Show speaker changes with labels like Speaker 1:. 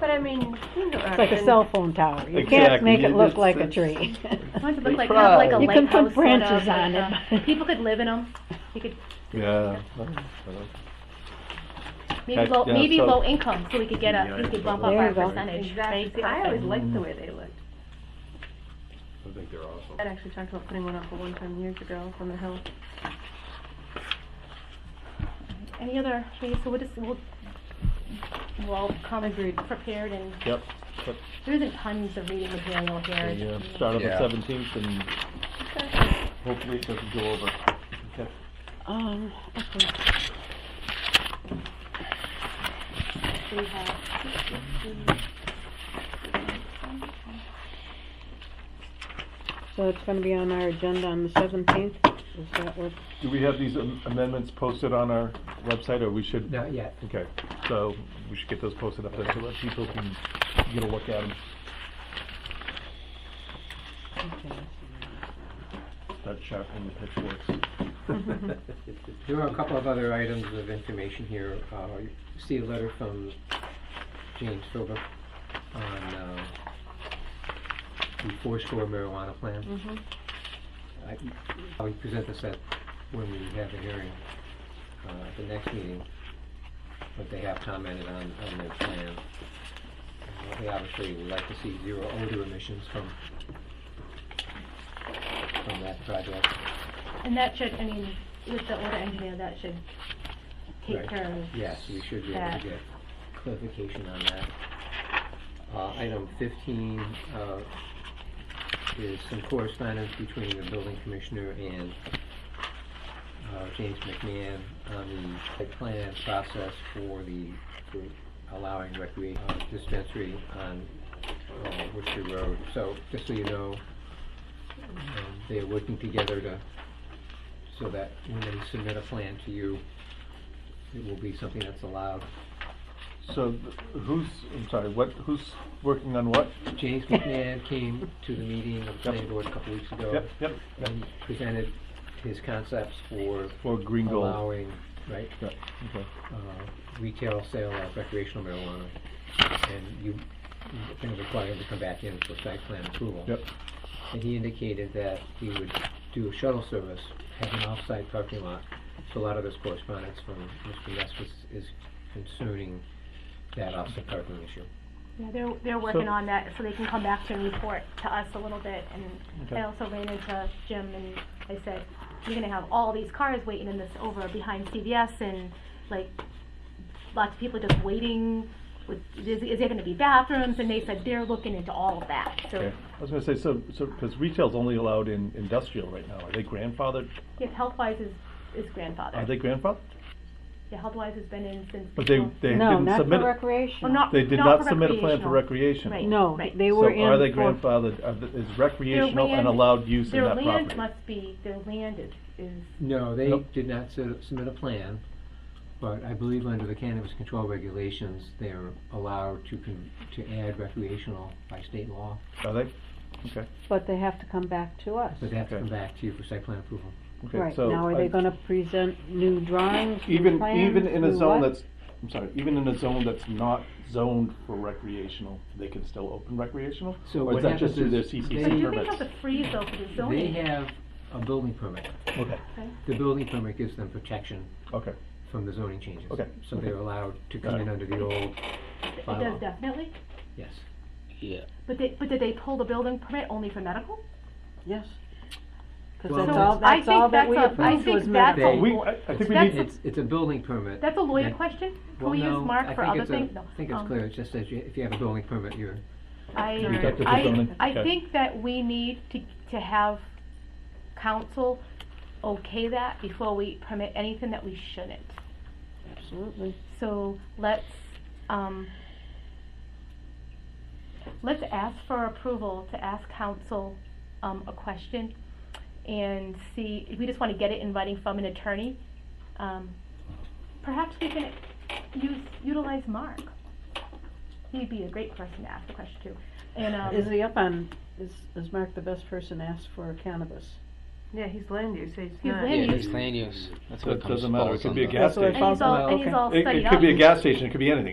Speaker 1: But I mean, single
Speaker 2: It's like a
Speaker 1: action,
Speaker 2: cell phone tower, you can't
Speaker 3: Exactly.
Speaker 2: make it look
Speaker 3: It's-
Speaker 2: like a
Speaker 3: it's-
Speaker 2: tree.
Speaker 4: I want it to look
Speaker 3: They
Speaker 4: like, kind of like a
Speaker 3: try.
Speaker 2: You can
Speaker 4: lighthouse
Speaker 2: put
Speaker 4: sort
Speaker 2: branches
Speaker 4: of,
Speaker 2: on
Speaker 4: like,
Speaker 2: it.
Speaker 4: uh, People could live in them, you could,
Speaker 3: Yeah.
Speaker 4: maybe
Speaker 3: Heck,
Speaker 4: low,
Speaker 3: yeah,
Speaker 4: maybe
Speaker 3: so-
Speaker 4: low income, so we could get a, we could bump up
Speaker 2: There
Speaker 4: our
Speaker 2: you go.
Speaker 4: percentage.
Speaker 1: exactly,
Speaker 4: right?
Speaker 1: I always liked the way they looked.
Speaker 5: I think they're awesome.
Speaker 1: I'd actually talked about putting one up for one time years ago from the hill.
Speaker 4: Mm. Any other, okay, so we'll just, we'll, we'll all come prepared and,
Speaker 3: Yep.
Speaker 4: there isn't tons of reading material here.
Speaker 3: And,
Speaker 4: It's-
Speaker 3: uh, Start on the
Speaker 5: Yeah.
Speaker 3: seventeenth and hopefully it doesn't go over. Okay.
Speaker 2: Um, okay.
Speaker 4: we have-
Speaker 2: So it's gonna be on our agenda on the seventeenth, is that what?
Speaker 3: Do we have these am- amendments posted on our website or we should?
Speaker 6: Not yet.
Speaker 3: Okay, so we should get those posted up there so that people can get a look at them.
Speaker 2: okay.
Speaker 3: Start sharpening the pitchforks.
Speaker 6: There are a couple of other items of information here. Uh, you see a letter from James Philbrook on, uh, the four score marijuana plan.
Speaker 1: Mm-hmm.
Speaker 6: I, I'll present this at, when we have the hearing, uh, at the next meeting. But they have commented on, on their plan. Uh, They obviously would like to see zero odor emissions from, from that project.
Speaker 4: And that should, I mean, with the order engineer, that should take
Speaker 6: Right.
Speaker 4: care of.
Speaker 6: Yes, we should be able
Speaker 4: that.
Speaker 6: to get clarification on that. Uh, item fifteen, uh, is some correspondence between the building commissioner and, uh, James McMahon on the site plan process for the, for allowing recre, uh, dispensary on, uh, Worcester Road. So, just so you know, um, they're working together to, so that when they submit a plan to you, it will be something that's allowed.
Speaker 3: So th- who's, I'm sorry, what, who's working on what?
Speaker 6: James McNabb came to the meeting of the planning board a couple weeks ago
Speaker 3: Yep, yep.
Speaker 6: and presented his concepts for
Speaker 3: For green gold.
Speaker 6: allowing, right,
Speaker 3: Yeah, okay.
Speaker 6: uh, retail sale of recreational marijuana. And you, you're gonna require him to come back in for site plan approval.
Speaker 3: Yep.
Speaker 6: And he indicated that he would do a shuttle service, have an off-site parking lot. So a lot of this correspondence from Mr. Ness was, is concerning that off-site parking issue.
Speaker 4: Yeah, they're, they're working on that, so they can come back to and report to us a little bit, and
Speaker 3: Okay.
Speaker 4: I also ran into Jim, and I said, you're gonna have all these cars waiting in this over behind CVS, and like, lots of people just waiting, with, is, is there gonna be bathrooms, and they said they're looking into all of that, so,
Speaker 3: Okay. I was gonna say, so, so, because retail's only allowed in industrial right now. Are they grandfathered?
Speaker 4: yeah, Healthwise is, is grandfather.
Speaker 3: Are they grandfathered?
Speaker 4: Yeah, Healthwise has been in since.
Speaker 3: But they, they
Speaker 2: No,
Speaker 3: didn't
Speaker 2: not
Speaker 3: submit,
Speaker 2: for
Speaker 3: it-
Speaker 4: Well,
Speaker 2: recreation.
Speaker 4: not,
Speaker 3: they did
Speaker 4: not
Speaker 3: not submit a plan for recreation.
Speaker 4: Right.
Speaker 2: No, they
Speaker 3: So
Speaker 2: were in.
Speaker 3: are they
Speaker 2: for-
Speaker 3: grandfathered, are the- is recreational and
Speaker 4: land-
Speaker 3: allowed use in that
Speaker 4: Their land
Speaker 3: property?
Speaker 4: must be, their land is, is
Speaker 6: No, they
Speaker 3: Nope.
Speaker 6: did not su- submit a plan, but I believe under the cannabis control regulations, they're allowed to, con- to add recreational by state law,
Speaker 3: Are they?
Speaker 2: But they have to come back to us.
Speaker 6: but they have to come
Speaker 3: Okay.
Speaker 6: back to you for site plan approval.
Speaker 3: Okay,
Speaker 2: Right,
Speaker 3: so
Speaker 2: now are
Speaker 3: I-
Speaker 2: they gonna present new drawings, new
Speaker 3: Even,
Speaker 2: plans,
Speaker 3: even in a
Speaker 2: new
Speaker 3: zone
Speaker 2: what?
Speaker 3: that's, I'm sorry, even in a zone that's not zoned for recreational, they can still open recreational?
Speaker 6: So
Speaker 3: Or
Speaker 6: what
Speaker 3: is that just
Speaker 6: happens
Speaker 3: through
Speaker 6: is
Speaker 3: their
Speaker 6: they-
Speaker 3: CCC
Speaker 4: But do they have
Speaker 3: permits?
Speaker 4: a freeze though for the
Speaker 6: They
Speaker 4: zoning?
Speaker 6: have a building permit.
Speaker 3: Okay,
Speaker 6: The building permit gives them protection
Speaker 3: okay,
Speaker 6: from the zoning changes.
Speaker 3: Okay.
Speaker 6: So they're allowed to come in
Speaker 3: Right.
Speaker 6: under the old,
Speaker 4: It
Speaker 6: bylaw.
Speaker 4: does definitely,
Speaker 6: yes.
Speaker 4: but they, but did they pull the building permit only for medical?
Speaker 2: Yes. Cause
Speaker 6: Well,
Speaker 2: that's
Speaker 6: So
Speaker 2: all,
Speaker 4: I
Speaker 2: that's all
Speaker 4: think
Speaker 2: that we
Speaker 4: that's a- I
Speaker 2: approved
Speaker 4: think
Speaker 2: was
Speaker 4: that's a-
Speaker 6: They-
Speaker 2: medical.
Speaker 3: we, I, I think we
Speaker 4: That's-
Speaker 3: need,
Speaker 6: It's, it's a building permit.
Speaker 4: That's a lawyer
Speaker 6: that-
Speaker 4: question? Can
Speaker 6: Well,
Speaker 4: we
Speaker 6: no,
Speaker 4: use
Speaker 6: I
Speaker 4: Mark for
Speaker 6: think
Speaker 4: other
Speaker 6: it's a-
Speaker 4: things? No.
Speaker 6: I think it's
Speaker 4: Um,
Speaker 6: clear, it just says you- if you have a building permit, you're,
Speaker 3: got the
Speaker 4: I,
Speaker 3: zoning,
Speaker 4: I, I
Speaker 3: okay.
Speaker 4: think that we need to, to have council okay that before we permit anything that we shouldn't.
Speaker 2: Absolutely.
Speaker 4: So let's, um, let's ask for approval to ask council, um, a question and see, we just wanna get it in writing from an attorney. Um, perhaps we can use, utilize Mark. He'd be a great person to ask the question to. And,
Speaker 2: Is
Speaker 4: um,
Speaker 2: he up on, is, is Mark the best person to ask for cannabis?
Speaker 1: Yeah, he's land use, he's
Speaker 4: He's
Speaker 1: not.
Speaker 7: Yeah,
Speaker 4: land use.
Speaker 7: it's land use. That's what
Speaker 3: it
Speaker 7: it comes
Speaker 3: doesn't matter, it
Speaker 7: falls
Speaker 3: could be a
Speaker 7: under.
Speaker 3: gas
Speaker 2: That's what I
Speaker 3: station.
Speaker 4: and he's all,
Speaker 2: Well,
Speaker 4: and he's
Speaker 2: okay.
Speaker 4: all
Speaker 3: It,
Speaker 4: studied
Speaker 3: it
Speaker 4: up.
Speaker 3: could be a gas station, it could be anything,